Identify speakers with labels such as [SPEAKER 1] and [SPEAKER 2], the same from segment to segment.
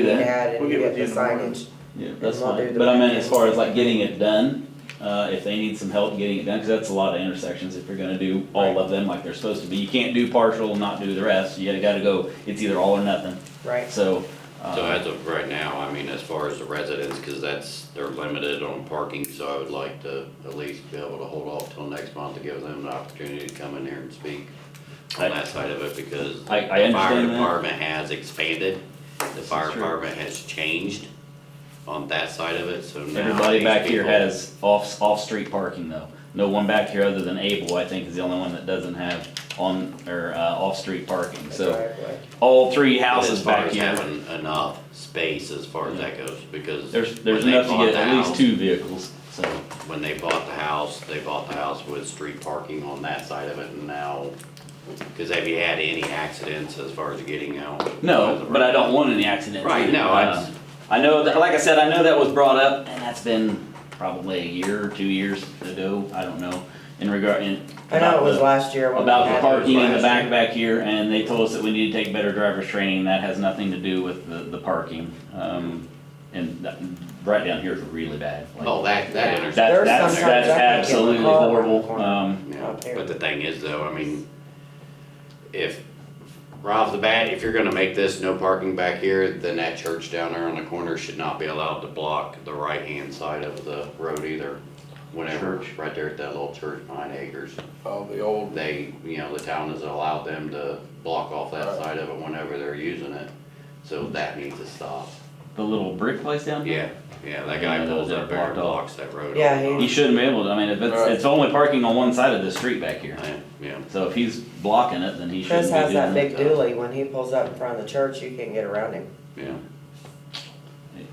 [SPEAKER 1] do that.
[SPEAKER 2] had and
[SPEAKER 3] We'll get
[SPEAKER 2] get
[SPEAKER 3] with
[SPEAKER 2] the
[SPEAKER 3] you in the morning.
[SPEAKER 2] signage.
[SPEAKER 1] Yeah, that's
[SPEAKER 2] I'll do
[SPEAKER 1] fine,
[SPEAKER 2] the
[SPEAKER 1] but I mean,
[SPEAKER 2] back
[SPEAKER 1] as
[SPEAKER 2] end.
[SPEAKER 1] far as like getting it done, uh, if they need some help getting it done, cause that's a lot of intersections, if you're gonna do all of them like they're supposed to be, you can't do partial and not do the rest, you gotta, gotta go, it's either all or nothing,
[SPEAKER 2] Right.
[SPEAKER 1] so. uh,
[SPEAKER 4] So as of right now, I mean, as far as the residents, because that's, they're limited on parking, so I would like to at least be able to hold off till next month to give them the opportunity to come in here and speak
[SPEAKER 1] I-
[SPEAKER 4] on that side of it, because
[SPEAKER 1] I- I
[SPEAKER 4] the fire
[SPEAKER 1] understand that.
[SPEAKER 4] department has expanded, the fire
[SPEAKER 1] true.
[SPEAKER 4] department has changed on that side of it, so now.
[SPEAKER 1] Everybody
[SPEAKER 4] these
[SPEAKER 1] back here
[SPEAKER 4] people-
[SPEAKER 1] has off, off-street parking though, no one back here other than Abel, I think, is the only one that doesn't have on, or, uh, off-street parking,
[SPEAKER 2] the
[SPEAKER 1] so.
[SPEAKER 2] driveway.
[SPEAKER 1] All three
[SPEAKER 4] But
[SPEAKER 1] houses back
[SPEAKER 4] As
[SPEAKER 1] here,
[SPEAKER 4] far as having enough space as far as that goes, because.
[SPEAKER 1] there's, there's
[SPEAKER 4] when they
[SPEAKER 1] enough to
[SPEAKER 4] bought
[SPEAKER 1] get
[SPEAKER 4] the
[SPEAKER 1] at least
[SPEAKER 4] house-
[SPEAKER 1] two vehicles, so.
[SPEAKER 4] when they bought the house, they bought the house with street parking on that side of it and now, cause have you had any accidents as far as getting out?
[SPEAKER 1] No, but I don't want any accidents.
[SPEAKER 4] Right,
[SPEAKER 1] either.
[SPEAKER 4] no, I-
[SPEAKER 1] Uh, I know, that- like I said, I know that was brought up, and that's been probably a year or two years ago, I don't know, in regard, in.
[SPEAKER 2] I know
[SPEAKER 1] about
[SPEAKER 2] it was
[SPEAKER 1] the-
[SPEAKER 2] last year when we
[SPEAKER 1] About
[SPEAKER 2] had
[SPEAKER 1] the
[SPEAKER 2] it.
[SPEAKER 1] parking in the
[SPEAKER 2] Last
[SPEAKER 1] back,
[SPEAKER 2] year.
[SPEAKER 1] back here, and they told us that we need to take better driver's training, that has nothing to do with the, the parking. Um, and that, right down here is really bad. like,
[SPEAKER 4] Oh, that, that
[SPEAKER 1] That,
[SPEAKER 4] enters.
[SPEAKER 2] There's
[SPEAKER 1] that's,
[SPEAKER 2] sometimes
[SPEAKER 1] that's
[SPEAKER 2] I think it's
[SPEAKER 1] absolutely
[SPEAKER 2] a car around the
[SPEAKER 1] horrible,
[SPEAKER 2] corner.
[SPEAKER 1] um,
[SPEAKER 4] Yeah, but the thing is though, I mean, if, right off the bat, if you're gonna make this no parking back here, then that church down there on the corner should not be allowed to block the right-hand side of the road either. Whenever,
[SPEAKER 1] Church.
[SPEAKER 4] right there at that little church, Nine Acres.
[SPEAKER 3] Oh, the old,
[SPEAKER 4] they, you know, the town has allowed them to block off that side of it whenever they're using it. So that needs to stop.
[SPEAKER 1] the little brick place down here.
[SPEAKER 4] Yeah, yeah, that guy
[SPEAKER 1] Uh-huh. Yeah,
[SPEAKER 4] pulls
[SPEAKER 1] they're
[SPEAKER 4] up there and
[SPEAKER 1] blocked off.
[SPEAKER 4] blocks that road.
[SPEAKER 2] Yeah,
[SPEAKER 4] all
[SPEAKER 1] He
[SPEAKER 4] the
[SPEAKER 1] shouldn't be able to, I mean, if it's,
[SPEAKER 3] Right.
[SPEAKER 1] it's only parking on one side of the street back here.
[SPEAKER 4] time. Yeah,
[SPEAKER 1] So if he's blocking it, then he shouldn't
[SPEAKER 2] Chris
[SPEAKER 1] be
[SPEAKER 2] has
[SPEAKER 1] doing
[SPEAKER 2] that
[SPEAKER 1] it.
[SPEAKER 2] big dually, when he pulls up in front of the church, you can't get around him.
[SPEAKER 4] yeah.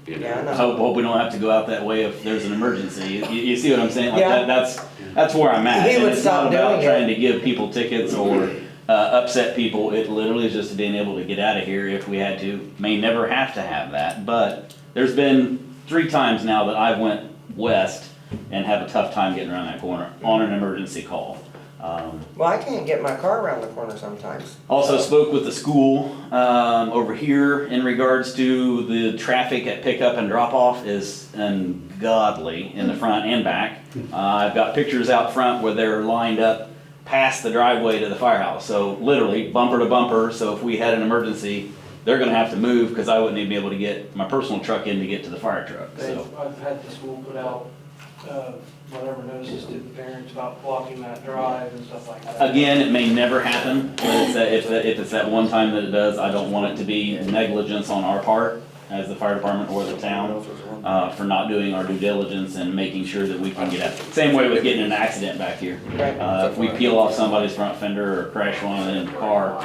[SPEAKER 4] You
[SPEAKER 2] Yeah, I
[SPEAKER 4] know,
[SPEAKER 1] I
[SPEAKER 2] know.
[SPEAKER 1] hope, hope we don't have to go out that way if there's an emergency. You, you see what I'm saying? Like
[SPEAKER 2] Yeah.
[SPEAKER 1] that, that's, that's where I'm at.
[SPEAKER 2] He
[SPEAKER 1] And
[SPEAKER 2] would
[SPEAKER 1] it's not
[SPEAKER 2] stop
[SPEAKER 1] about
[SPEAKER 2] doing it.
[SPEAKER 1] trying to give people tickets or, uh, upset people. It literally is just being able to get out of here if we had to. May never have to have that, but there's been three times now that I went west and have a tough time getting around that corner on an emergency call. Um,
[SPEAKER 2] Well, I can't get my car around the corner sometimes.
[SPEAKER 1] Also spoke with the school um, over here in regards to the traffic at pickup and drop off is ungodly in the front and back. Uh, I've got pictures out front where they're lined up past the driveway to the firehouse, so literally bumper to bumper. So if we had an emergency, they're gonna have to move because I wouldn't even be able to get my personal truck in to get to the fire truck. So
[SPEAKER 5] They've, I've had the school put out, uh, whatever notices to the parents about blocking that drive and stuff like that.
[SPEAKER 1] again, it may never happen, but it's that, if, that- if it's that one time that it does, I don't want it to be negligence on our part as the fire department or the town. uh, for not doing our due diligence and making sure that we can get out. Same way with getting in an accident back here.
[SPEAKER 2] Right.
[SPEAKER 1] Uh, if we peel off somebody's front fender or crash one in the car,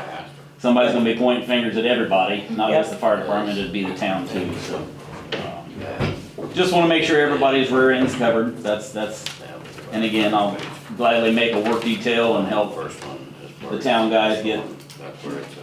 [SPEAKER 1] somebody's gonna be pointing fingers at everybody, not just the fire department, it'd be the town too, so. um, Just wanna make sure everybody's rear end's covered, that's, that's, and again, I'll gladly make a work detail and help
[SPEAKER 4] First one. is where
[SPEAKER 1] The
[SPEAKER 4] it's-
[SPEAKER 1] town guys get-
[SPEAKER 4] That's where it's, uh,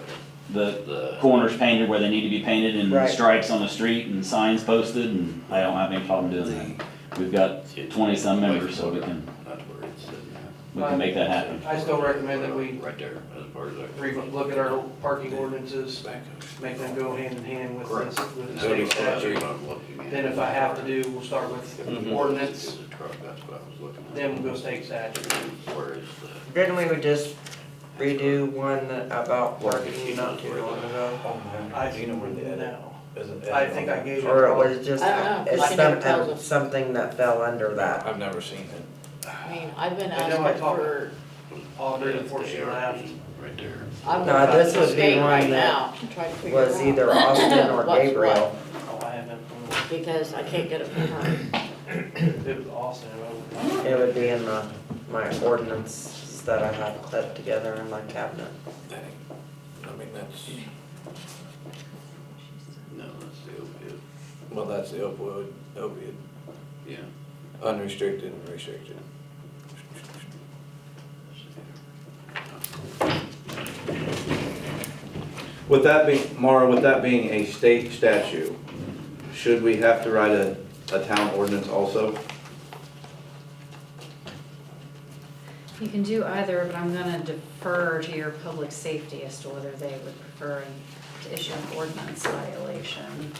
[SPEAKER 1] the
[SPEAKER 4] the,
[SPEAKER 1] corners painted where they need to be painted and
[SPEAKER 2] Right.
[SPEAKER 1] stripes on the street and signs posted, and I don't have any problem doing that. We've got twenty-some members, so we can
[SPEAKER 4] that's where it's sitting at.
[SPEAKER 1] We can make that happen.
[SPEAKER 5] I still recommend that we
[SPEAKER 4] Right there, as far as that.
[SPEAKER 5] re- look at our parking ordinances,
[SPEAKER 4] Back
[SPEAKER 5] make them go hand in hand with this, with the
[SPEAKER 4] up.
[SPEAKER 5] state statute. Then
[SPEAKER 4] Then
[SPEAKER 5] if I have to do, we'll start with ordinance,
[SPEAKER 4] The truck, that's what I was looking at.
[SPEAKER 5] then we'll go state statute.
[SPEAKER 4] Where is the?
[SPEAKER 2] Didn't we just redo one that- about parking not too long ago?
[SPEAKER 5] I, no, I think I gave you.
[SPEAKER 2] Or it was just,
[SPEAKER 6] I don't know,
[SPEAKER 2] it's
[SPEAKER 6] I never tells
[SPEAKER 2] something,
[SPEAKER 6] us.
[SPEAKER 2] something that fell under that.
[SPEAKER 3] I've never seen it.
[SPEAKER 6] I mean, I've been
[SPEAKER 5] I know I
[SPEAKER 6] asking
[SPEAKER 5] talked-
[SPEAKER 6] for,
[SPEAKER 5] All day enforcement hours.
[SPEAKER 4] Right there.
[SPEAKER 6] I'm
[SPEAKER 2] No,
[SPEAKER 6] going
[SPEAKER 2] this
[SPEAKER 6] to
[SPEAKER 2] would
[SPEAKER 6] the
[SPEAKER 2] be
[SPEAKER 6] state
[SPEAKER 2] one
[SPEAKER 6] right
[SPEAKER 2] that
[SPEAKER 6] now to try to figure out.
[SPEAKER 2] Was either Austin or
[SPEAKER 6] what's what,
[SPEAKER 2] Gabriel.
[SPEAKER 5] Oh, I haven't,
[SPEAKER 6] Because I can't get it from her.
[SPEAKER 5] it was awesome.
[SPEAKER 2] It would be in the, my ordinances that I have clipped together in my cabinet.
[SPEAKER 3] I mean, that's,
[SPEAKER 4] No, that's the opioid,
[SPEAKER 3] well, that's the opioid, opioid,
[SPEAKER 4] yeah.
[SPEAKER 3] unrestricted and restricted. With that being, Mara, with that being a state statute, should we have to write a, a town ordinance also?
[SPEAKER 7] You can do either, but I'm gonna defer to your public safety as to whether they would prefer an to issue an ordinance violation.